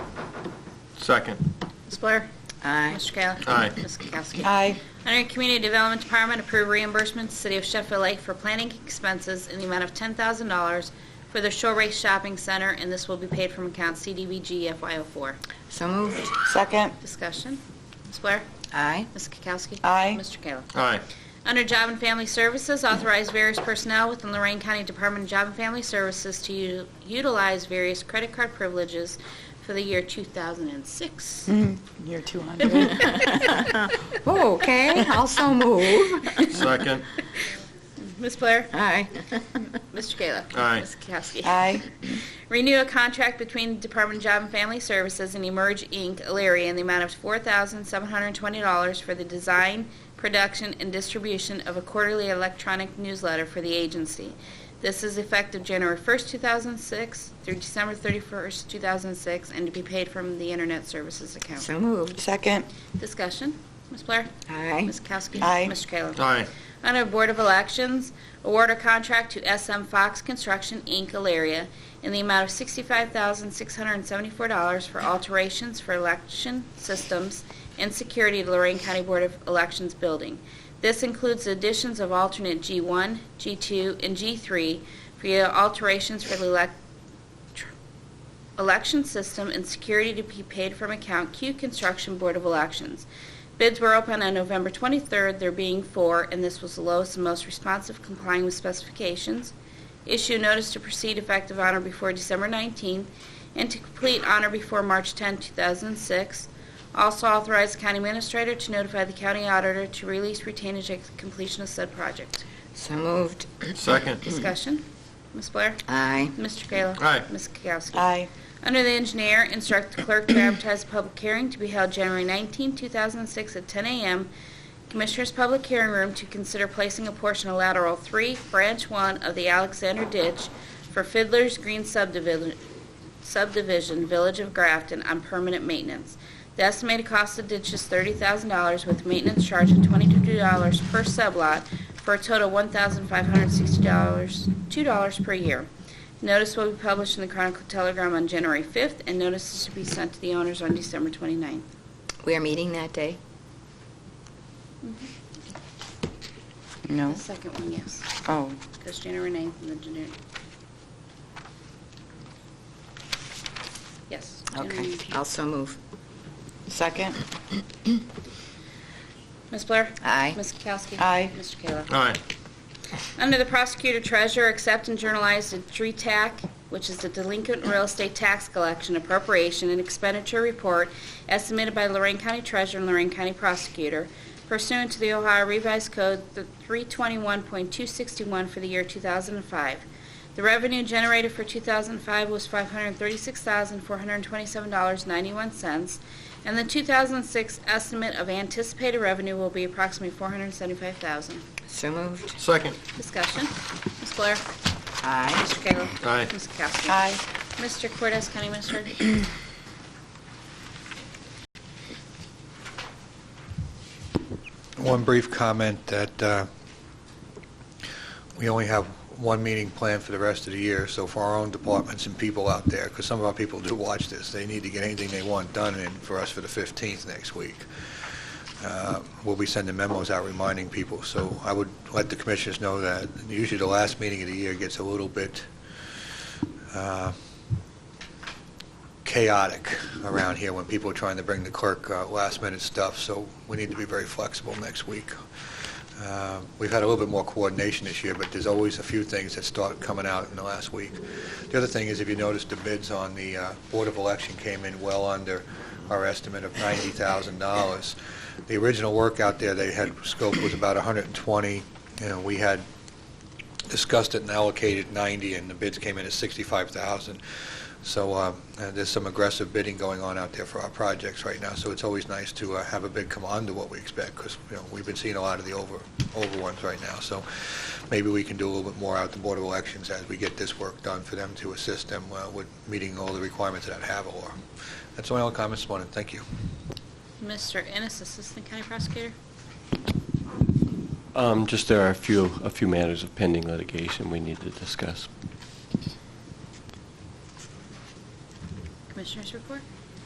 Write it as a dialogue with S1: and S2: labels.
S1: Second.
S2: Ms. Blair?
S3: Aye.
S2: Mr. Kayla?
S1: Aye.
S2: Ms. Kukowski?
S3: Aye.
S2: Under Community Development Department, approve reimbursement to City of Sheffield Lake for planning expenses in the amount of $10,000 for the Shore Race Shopping Center, and this will be paid from account CDBG FY04.
S3: So moved.
S4: Second.
S2: Discussion. Ms. Blair?
S3: Aye.
S2: Ms. Kukowski?
S4: Aye.
S2: Mr. Kayla?
S1: Aye.
S2: Under Job and Family Services, authorize various personnel within Lorraine County Department of Job and Family Services to u- utilize various credit card privileges for the year 2006.
S4: Mm. Year 200.
S3: Okay, also move.
S1: Second.
S2: Ms. Blair?
S3: Aye.
S2: Mr. Kayla?
S1: Aye.
S2: Ms. Kowski?
S4: Aye.
S2: Renew a contract between Department of Job and Family Services and Emerge Inc., Elyria, in the amount of $4,720 for the design, production, and distribution of a quarterly electronic newsletter for the agency. This is effective January 1st, 2006 through December 31st, 2006, and to be paid from the Internet Services account.
S3: So moved.
S4: Second.
S2: Discussion. Ms. Blair?
S3: Aye.
S2: Ms. Kowski?
S4: Aye.
S2: Mr. Kayla?
S1: Aye.
S2: Under Board of Elections, award a contract to SM Fox Construction, Inc., Alaria, in the amount of $65,674 for alterations for election systems and security to Lorraine County Board of Elections building. This includes additions of alternate G1, G2, and G3 for your alterations for the elec- tr- election system and security to be paid from account Q Construction Board of Elections. Bids were open on November 23rd, there being four, and this was the lowest and most responsive complying with specifications. Issue notice to proceed effective honor before December 19th and to complete honor before March 10, 2006. Also authorize county administrator to notify the county auditor to release retainage at completion of said project.
S3: So moved.
S1: Second.
S2: Discussion? Ms. Blair?
S3: Aye.
S2: Mr. Kayla?
S1: Aye.
S2: Ms. Kukowski?
S4: Aye.
S2: Under the engineer, instruct the clerk to advertise a public hearing to be held January 19, 2006 at 10 a.m. Commissioners' Public Hearing Room to consider placing a portion of lateral 3, branch 1 of the Alexander Ditch for Fiddler's Green subdivision, subdivision, Village of Grafton, on permanent maintenance. The estimated cost of ditch is $30,000 with maintenance charge of $22 per sublot for a total of $1,560, $2 per year. Notice will be published in the Chronicle Telegram on January 5th, and notices to be sent to the owners on December 29th.
S3: We are meeting that day?
S4: No.
S2: The second one, yes,
S4: Mm-hmm. Oh.
S2: because January 9th and the January... Yes. January
S3: Okay,
S2: 9th.
S3: also move.
S4: Second.
S2: Ms. Blair?
S3: Aye.
S2: Ms. Kowski?
S4: Aye.
S2: Mr. Kayla?
S1: Aye.
S2: Under the prosecutor treasurer, accept and journalize the DRETAC, which is the delinquent real estate tax collection appropriation and expenditure report estimated by Lorraine County Treasurer and Lorraine County Prosecutor pursuant to the Ohio Revised Code th- 321.261 for the year 2005. The revenue generated for 2005 was $536,427.91, and the 2006 estimate of anticipated revenue will be approximately $475,000.
S3: So moved.
S1: Second.
S2: Discussion. Ms. Blair?
S3: Aye.
S2: Mr. Kayla?
S1: Aye.
S2: Ms. Kowski?
S4: Aye.
S2: Mr. Cortez, County Minister?
S5: One brief comment that uh, we only have one meeting planned for the rest of the year, so for our own departments and people out there, because some of our people do watch this, they need to get anything they want done in for us for the 15th next week. Uh, We'll be sending memos out reminding people, so I would let the commissioners know that usually the last meeting of the year gets a little bit uh, chaotic around here when people are trying to bring the clerk uh, last-minute stuff, so we need to be very flexible next week. Uh, We've had a little bit more coordination this year, but there's always a few things that start coming out in the last week. The other thing is, if you notice, the bids on the uh, Board of Election came in well under our estimate of $90,000. The original work out there they had scope was about 120, you know, we had discussed it and allocated 90, and the bids came in at 65,000. So uh, uh, there's some aggressive bidding going on out there for our projects right now, so it's always nice to uh, have a bid come under what we expect, because, you know, we've been seeing a lot of the over, over ones right now, so maybe we can do a little bit more out the Board of Elections as we get this work done for them to assist them uh, with meeting all the requirements that have or. That's my only comments this morning, thank you.
S2: Mr. Ennis, Assistant County Prosecutor?
S6: Um, Just there are a few, a few matters of pending litigation we need to discuss.
S2: Commissioners report?